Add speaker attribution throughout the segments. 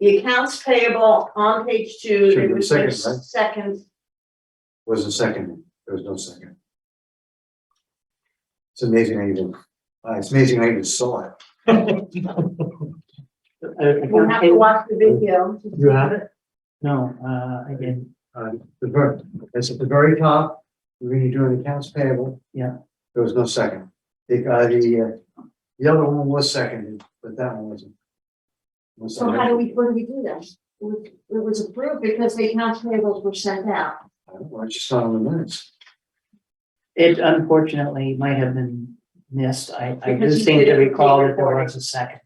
Speaker 1: The accounts payable on page two.
Speaker 2: Should
Speaker 1: it
Speaker 2: be
Speaker 1: was
Speaker 2: second,
Speaker 1: just
Speaker 2: right?
Speaker 1: Second,
Speaker 2: Was a second, there was no second. It's amazing I even, uh, it's amazing I even saw it.
Speaker 1: you have to watch the video.
Speaker 3: You have it? No, uh, again,
Speaker 2: Uh, the ver, it's at the very top, when you're doing accounts payable.
Speaker 3: Yeah.
Speaker 2: There was no second. The, uh, the, uh, the other one was seconded, but that one wasn't. Was
Speaker 1: So how do we, what do we do then? It was approved because the accounts payables were sent out.
Speaker 2: I don't know, I just saw it in the minutes.
Speaker 3: it unfortunately might have been missed. I, I do
Speaker 1: Because you
Speaker 3: seem to
Speaker 1: didn't
Speaker 3: recall that there
Speaker 1: record it.
Speaker 3: was a second.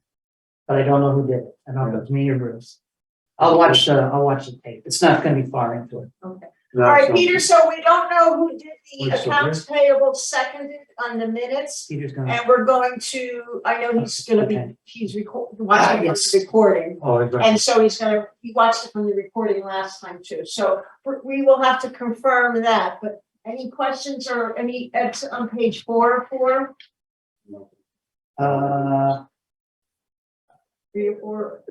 Speaker 3: But I don't know who did it. I don't know if it's me or Bruce. I'll watch the, I'll watch the tape. It's not gonna be far into it.
Speaker 1: All
Speaker 2: No,
Speaker 1: right,
Speaker 2: it's not.
Speaker 1: Peter, so we don't know who did the
Speaker 2: Wait, so
Speaker 1: accounts payable seconded on the minutes.
Speaker 3: Peter's gonna,
Speaker 1: And we're going to, I know he's gonna be,
Speaker 3: Okay.
Speaker 1: he's record,
Speaker 3: Ah,
Speaker 1: watching
Speaker 3: yes.
Speaker 1: this recording.
Speaker 2: Oh, it's right.
Speaker 1: And so he's gonna, he watched it from the recording last time too, so we- we will have to confirm that, but any questions or any, it's on page four or four,
Speaker 3: uh,
Speaker 1: three or four?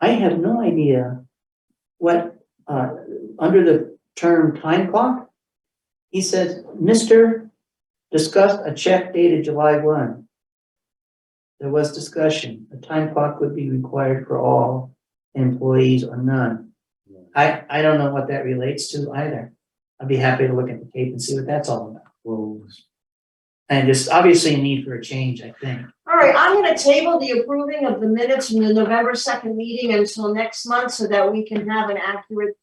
Speaker 3: I have no idea what, uh, under the term time clock. He says, Mister discussed a check dated July one. There was discussion, a time clock would be required for all employees or none. I, I don't know what that relates to either. I'd be happy to look at the tape and see what that's all about.
Speaker 2: Well,
Speaker 3: And there's obviously a need for a change, I think.
Speaker 1: All right, I'm gonna table the approving of the minutes from the November second meeting until next month so that we can have an accurate,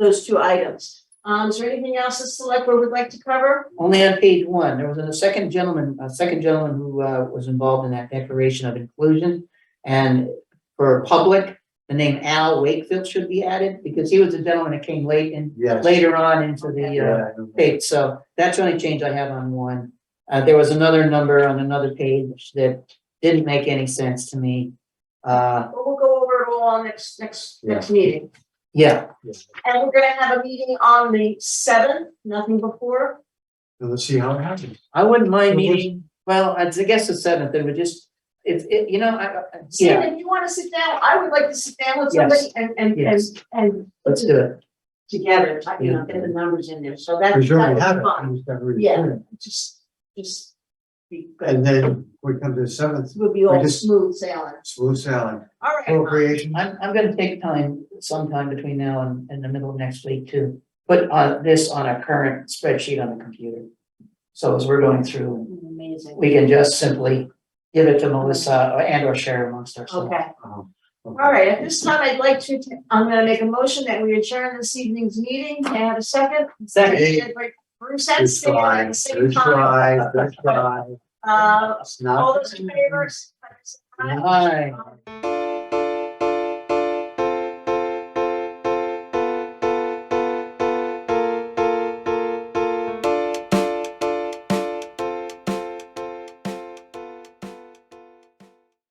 Speaker 1: those two items. Um, is there anything else the select board would like to cover?
Speaker 3: Only on page one, there was a second gentleman, a second gentleman who uh was involved in that declaration of inclusion. And for public, the name Al Wakefield should be added because he was the gentleman that came late and
Speaker 2: yes.
Speaker 3: later on into the uh
Speaker 2: Yeah, I know.
Speaker 3: page. So that's the only change I have on one. Uh, there was another number on another page that didn't make any sense to me. Uh,
Speaker 1: Well, we'll go over it all on next, next, next meeting.
Speaker 3: yeah,
Speaker 1: And we're gonna have a meeting on the seventh, nothing before.
Speaker 2: And let's see how it happens.
Speaker 3: I wouldn't mind
Speaker 2: So which-
Speaker 3: meeting, well, I guess the seventh, and we just, it's, it, you know, I, I-
Speaker 1: Steve,
Speaker 3: yeah,
Speaker 1: if you wanna sit down, I would like to sit down with
Speaker 3: Yes.
Speaker 1: somebody and, and, and,
Speaker 3: Yes.
Speaker 1: and
Speaker 3: let's do it.
Speaker 1: together, I- you know,
Speaker 2: Yeah.
Speaker 1: get the numbers in there, so that's,
Speaker 2: Because you already have
Speaker 1: that's
Speaker 2: it.
Speaker 1: fun.
Speaker 2: you just gotta read it.
Speaker 1: Yeah, just, just be good,
Speaker 2: And then we come to the seventh,
Speaker 1: we'll be all
Speaker 2: just-
Speaker 1: smooth sailing.
Speaker 2: smooth sailing,
Speaker 1: All right, Mike.
Speaker 2: appropriation.
Speaker 3: I'm, I'm gonna take time sometime between now and, and the middle of next week to put on this on a current spreadsheet on the computer. So as we're going through,
Speaker 1: amazing,
Speaker 3: we can just simply give it to Melissa or- and or share amongst ourselves.
Speaker 1: okay.
Speaker 2: All
Speaker 1: All right, at this time, I'd like to, I'm gonna make a motion that we adjourn this evening's meeting, can I have a second?
Speaker 3: Second,
Speaker 1: Bruce and
Speaker 2: Good
Speaker 1: Stan at
Speaker 2: try,
Speaker 1: the same
Speaker 2: good
Speaker 1: time,
Speaker 2: try, good try.
Speaker 1: uh,
Speaker 2: It's
Speaker 1: all
Speaker 2: not.
Speaker 1: those in favor? say aye.
Speaker 3: Aye.
Speaker 1: Aye.